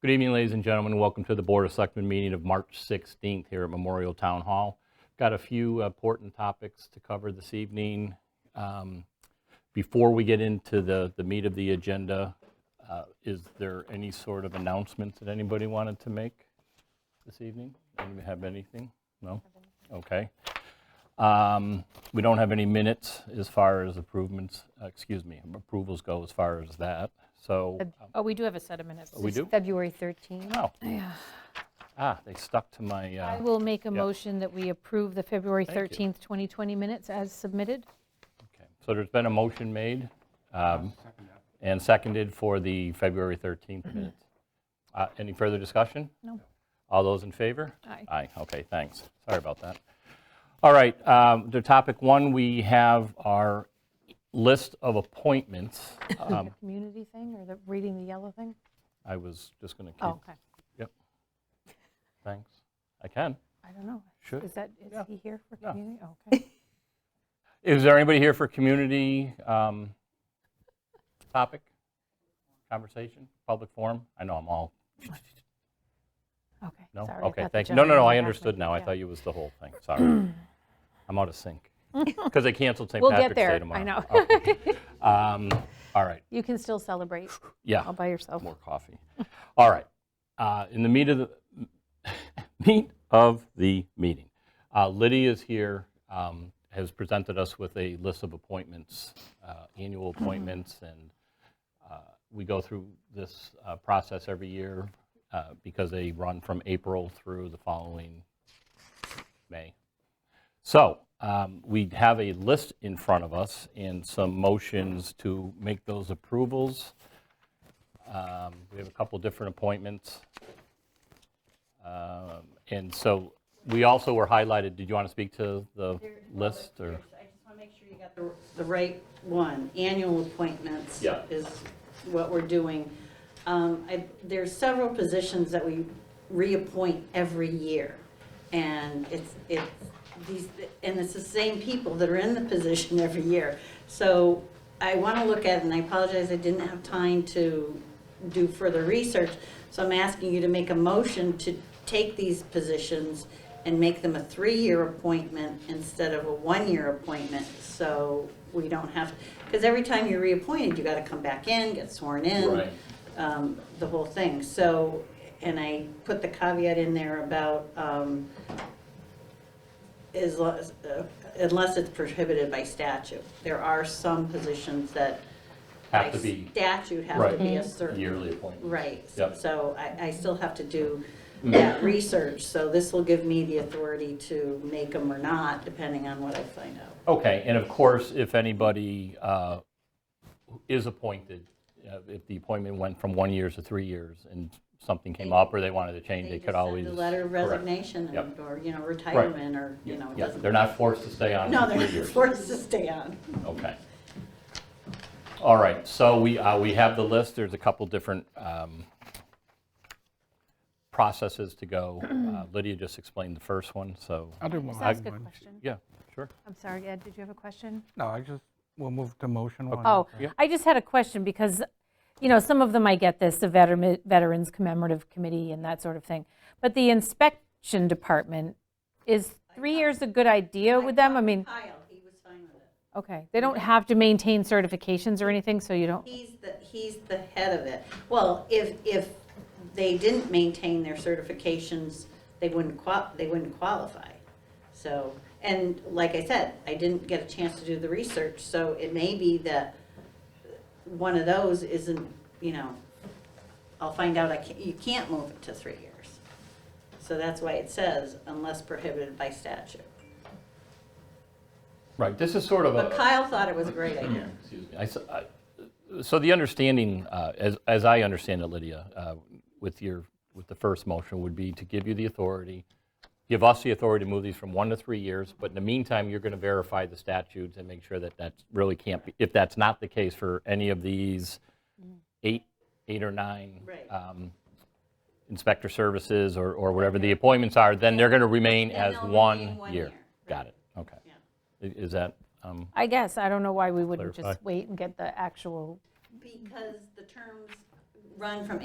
Good evening, ladies and gentlemen. Welcome to the Board of Selectmen meeting of March 16th here at Memorial Town Hall. Got a few important topics to cover this evening. Um, Before we get into the the meat of the agenda, uh, is there any sort of announcements that anybody wanted to make this evening? Anybody have anything? No? Okay. Um, We don't have any minutes as far as improvements, excuse me, approvals go as far as that, so Oh, we do have a set of minutes. we do? February 13th. Oh. Ah, they stuck to my, I uh, will make a Yeah. motion that we approve the February Thank you. 13th, 2020 minutes as submitted. okay. So there's been a motion made um, and seconded for the February 13th minutes. Uh, Any further discussion? Mm-hmm. No. All those in favor? Aye. Aye, okay, thanks. Sorry about that. All right, um, to topic one, we have our list of appointments. Um, The community thing, or the reading the yellow thing? I was just going to Oh, keep, okay. thanks. I can. I don't know. Sure. Is that, is Yeah. he here for Yeah. community? Oh, Okay. Is there anybody here for community um, topic, conversation, public forum? I know I'm all, Okay. no? Sorry, I Okay, thought the thank you. No, gentleman no, no, in the I back understood might- now. I yeah. thought you was the whole thing, sorry. I'm out of sync. Because they canceled St. We'll get Patrick's Day there, tomorrow. I know. Okay. Um, All right, You can still celebrate yeah, all by yourself. more coffee. All right, uh, in the meat of the, meat of the meeting. Uh, Lydia is here, um, has presented us with a list of appointments, uh, annual appointments, and uh, we go through this uh, process every year uh, because they run from April through the following May. So um, we have a list in front of us and some motions to make those approvals. Um, We have a couple different appointments. Um, And so we also were highlighted, did you want to speak to the list or? I just want to make sure you got the, the right one. Annual appointments Yeah. is what we're doing. Um, I, there's several positions that we reappoint every year. And it's, it's these, and it's the same people that are in the position every year. So I want to look at, it, and I apologize, I didn't have time to do further research. So I'm asking you to make a motion to take these positions and make them a three-year appointment instead of a one-year appointment, so we don't have, because every time you're reappointed, you gotta come back in, get sworn in. Right. um, The whole thing, so, and I put the caveat in there about, um, is, lo- uh, unless it's prohibited by statute. There are some positions that. Have to by be Statute have Right. to be a certain. yearly appointments? Right, Yep. Mm-hmm. so I, I still have to do that research, so this will give me the authority to make them or not, depending on what I find out. Okay, and of course, if anybody uh, is appointed, uh, if the appointment went from one year to three years and something came up or they wanted to change, they just could always. Send a letter of Correct. resignation Yep. and- or, you know, retirement or, you know, it Yeah, doesn't. They're not forced to stay on No, for they're three not years. forced to stay on. Okay. All right, so we, uh, we have the list, there's a couple different um, processes to go. Uh, Lydia just explained the first one, so, I did want Just to ask add a one. question. yeah, sure. I'm sorry, Ed, did you have a question? No, I just, we'll move to motion one. Oh, I just had a question because, you know, some of them I get this, the veteran- Veterans Commemorative Committee and that sort of thing. But the inspection department, is three years a good idea with them? I mean, Kyle, he was fine with it. okay, they don't have to maintain certifications or anything, so you don't, He's the, he's the head of it. Well, if, if they didn't maintain their certifications, they wouldn't qua, they wouldn't qualify. So, and like I said, I didn't get a chance to do the research, so it may be that one of those isn't, you know, I'll find out, I can't, you can't move it to three years. So that's why it says unless prohibited by statute. Right, this is sort of a. But Kyle thought it was a great idea. Excuse me. I s- I- So the understanding, uh, as as I understand it, Lydia, uh, with your, with the first motion would be to give you the authority, give us the authority to move these from one to three years, but in the meantime, you're going to verify the statutes and make sure that that really can't be, if that's not the case for any of these eight, eight or nine Mm-hmm. Right. um, inspector services or or whatever the appointments are, then they're going to remain Then as they'll remain one one year. year, right. Got it, okay. I- Is that? um, I guess, I don't know why we wouldn't Clarify. just wait and get the actual Because the terms run from